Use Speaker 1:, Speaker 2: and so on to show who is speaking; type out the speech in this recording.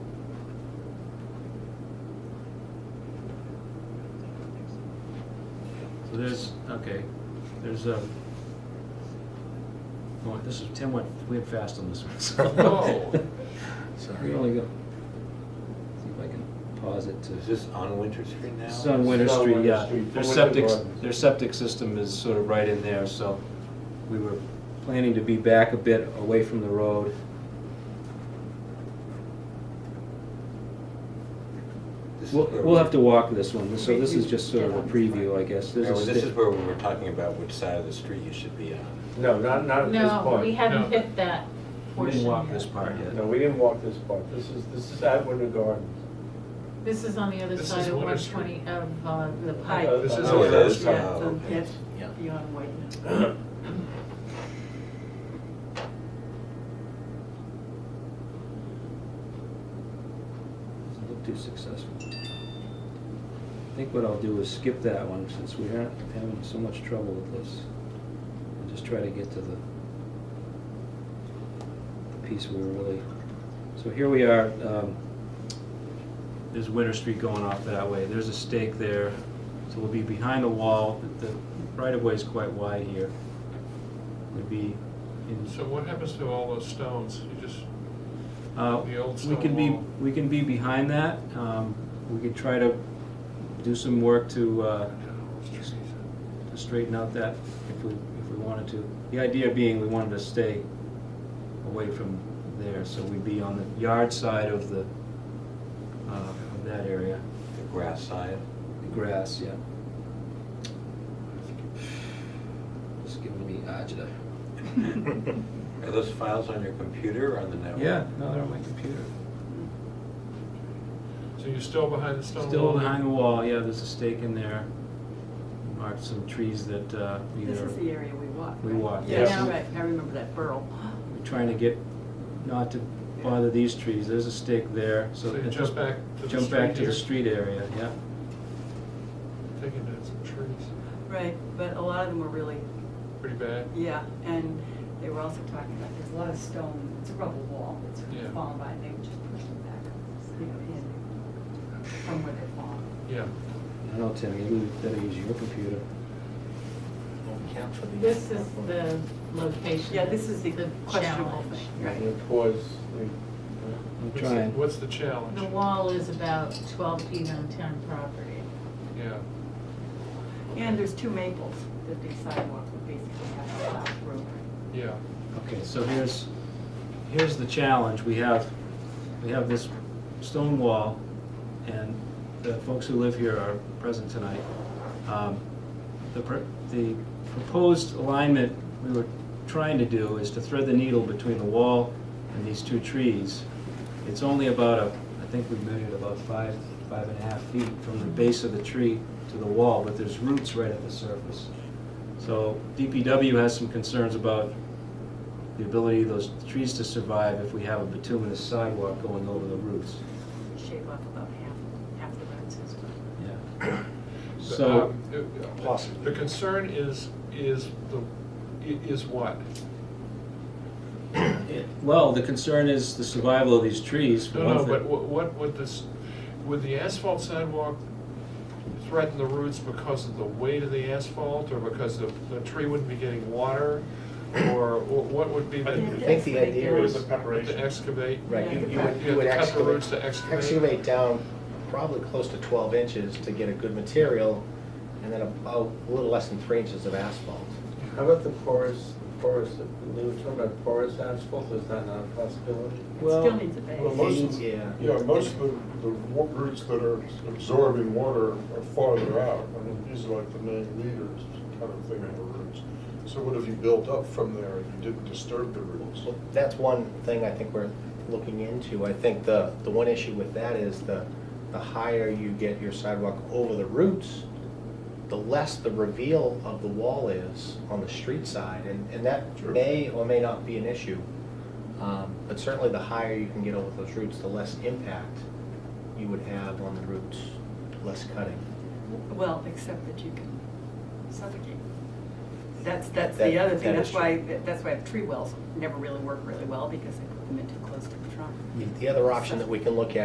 Speaker 1: So there's, okay, there's a, oh, this is, Tim went, we went fast on this one,
Speaker 2: Oh.
Speaker 1: so. We only
Speaker 3: Sorry.
Speaker 1: go, see if I can pause it
Speaker 3: Is
Speaker 1: to,
Speaker 3: this on Winter Street now?
Speaker 1: this is on Winter
Speaker 4: It's on
Speaker 1: Street,
Speaker 4: Winter
Speaker 1: yeah.
Speaker 4: Street,
Speaker 1: Their
Speaker 4: Winter
Speaker 1: septic,
Speaker 4: Gardens.
Speaker 1: their septic system is sort of right in there, so we were planning to be back a bit away from the road.
Speaker 3: This is
Speaker 1: We'll,
Speaker 3: where
Speaker 1: we'll
Speaker 3: we-
Speaker 1: have to walk this one, so this is just sort of a preview, I guess. There's a
Speaker 3: Howard, This
Speaker 1: sta-
Speaker 3: is where we were talking about which side of the street you should be on.
Speaker 4: No, not, not at this
Speaker 5: No, we
Speaker 4: point.
Speaker 2: No.
Speaker 5: haven't hit that
Speaker 1: We
Speaker 5: portion
Speaker 1: didn't walk
Speaker 5: yet.
Speaker 1: this part
Speaker 4: No,
Speaker 1: yet.
Speaker 4: we didn't walk this part. This is, this is at Winter Gardens.
Speaker 5: This is on the other
Speaker 2: This
Speaker 5: side
Speaker 2: is
Speaker 5: of
Speaker 2: Winter
Speaker 5: one
Speaker 2: Street.
Speaker 5: twenty, of uh, the
Speaker 4: Uh,
Speaker 5: pipe.
Speaker 4: this is
Speaker 3: Oh, it
Speaker 4: Winter
Speaker 3: is?
Speaker 4: Street.
Speaker 3: Yeah,
Speaker 5: So
Speaker 3: okay.
Speaker 5: That's
Speaker 3: Yeah.
Speaker 5: beyond Whiteman.
Speaker 1: Doesn't look too successful. I think what I'll do is skip that one, since we aren't having so much trouble with this. And just try to get to the, the piece we were really, so here we are, um, there's Winter Street going off that way, there's a stake there, so we'll be behind the wall, the the right-of-way is quite wide here. Would be in.
Speaker 2: So what happens to all those stones? You just,
Speaker 1: Uh,
Speaker 2: The old
Speaker 1: We
Speaker 2: stone
Speaker 1: can be,
Speaker 2: wall.
Speaker 1: we can be behind that. Um, We could try to do some work to, uh, to straighten out that if we, if we wanted to. The idea being we wanted to stay away from there, so we'd be on the yard side of the, uh, of that area,
Speaker 3: The grass side.
Speaker 1: the grass, yeah. Just giving me agita.
Speaker 3: Are those files on your computer or on the network?
Speaker 1: Yeah, no, they're on my computer.
Speaker 2: So you're still behind the stone wall?
Speaker 1: Still behind the wall, yeah, there's a stake in there. Marked some trees that uh, either.
Speaker 6: This is the area we walked.
Speaker 1: We
Speaker 6: right?
Speaker 1: walked,
Speaker 4: Yes.
Speaker 6: Yeah,
Speaker 4: yes.
Speaker 6: right, I remember that burl.
Speaker 1: We're trying to get, not to bother these trees, there's a stake there, so.
Speaker 2: So you jump back to the
Speaker 1: Jump back
Speaker 2: street
Speaker 1: to the
Speaker 2: here.
Speaker 1: street area, yeah.
Speaker 2: Taking down some trees,
Speaker 6: Right, but a lot of them were really,
Speaker 2: pretty bad.
Speaker 6: yeah, and they were also talking about, there's a lot of stone, it's a rubble wall that's
Speaker 2: Yeah.
Speaker 6: fallen by, and they would just push them back, you know, in from where they're falling.
Speaker 2: Yeah.
Speaker 1: I don't know, Tim, maybe we better use your computer.
Speaker 5: This is the location.
Speaker 6: Yeah, this is the questionable
Speaker 5: challenge.
Speaker 6: thing,
Speaker 4: And
Speaker 6: right?
Speaker 4: it pours, like,
Speaker 1: I'm
Speaker 2: What's the-
Speaker 1: trying.
Speaker 2: What's the challenge?
Speaker 5: The wall is about twelve feet on town property.
Speaker 2: Yeah.
Speaker 6: And there's two maples that the sidewalk would basically have to stop through.
Speaker 2: Yeah.
Speaker 1: Okay, so here's, here's the challenge, we have, we have this stone wall, and the folks who live here are present tonight. Um, The, pr- the proposed alignment we were trying to do is to thread the needle between the wall and these two trees. It's only about a, I think we measured about five, five and a half feet from the base of the tree to the wall, but there's roots right at the surface. So DPW has some concerns about the ability of those trees to survive if we have a bituminous sidewalk going over the roots.
Speaker 6: Shave off about half, half the road system.
Speaker 1: Yeah. So,
Speaker 2: Um, it-
Speaker 3: Possibly.
Speaker 2: The concern is, is the, i- is what?
Speaker 1: it- well, the concern is the survival of these trees. for
Speaker 2: No,
Speaker 1: one
Speaker 2: no,
Speaker 1: thing.
Speaker 2: but wha- what would this, would the asphalt sidewalk threaten the roots because of the weight of the asphalt, or because the, the tree wouldn't be getting water? Or wha- what would be
Speaker 7: I
Speaker 2: the,
Speaker 7: think the idea
Speaker 2: Or
Speaker 7: is.
Speaker 2: the to excavate?
Speaker 7: Right, you, you
Speaker 6: Yeah,
Speaker 7: would,
Speaker 2: you
Speaker 7: you would
Speaker 2: have to cut the roots
Speaker 7: excavate,
Speaker 2: to excavate.
Speaker 7: excavate down probably close to twelve inches to get a good material, and then about a little less than three inches of asphalt.
Speaker 4: How about the porous, porous, we were talking about porous asphalt, is that not a possibility?
Speaker 6: It
Speaker 1: Well,
Speaker 6: still needs a
Speaker 8: Well,
Speaker 6: base.
Speaker 8: most of, the-
Speaker 7: Yeah.
Speaker 8: yeah, most of the, the wa- roots that are absorbing water are farther out. I mean,
Speaker 4: Mm-hmm.
Speaker 8: these are like the main leaders, kind of thing, of the roots. So what if you built up from there and you didn't disturb the roots?
Speaker 7: Well, That's one thing I think we're looking into. I think the, the one issue with that is the, the higher you get your sidewalk over the roots, the less the reveal of the wall is on the street side, and, and that
Speaker 8: Sure.
Speaker 7: may or may not be an issue. Um, But certainly the higher you can get over those roots, the less impact you would have on the roots, less cutting.
Speaker 6: Well, except that you can suffocate. That's, that's
Speaker 7: That-
Speaker 6: the other thing,
Speaker 7: that
Speaker 6: that's
Speaker 7: is
Speaker 6: why,
Speaker 7: true.
Speaker 6: that's why tree wells never really work really well, because they put them in too close to the trunk.
Speaker 7: The other option that we can look at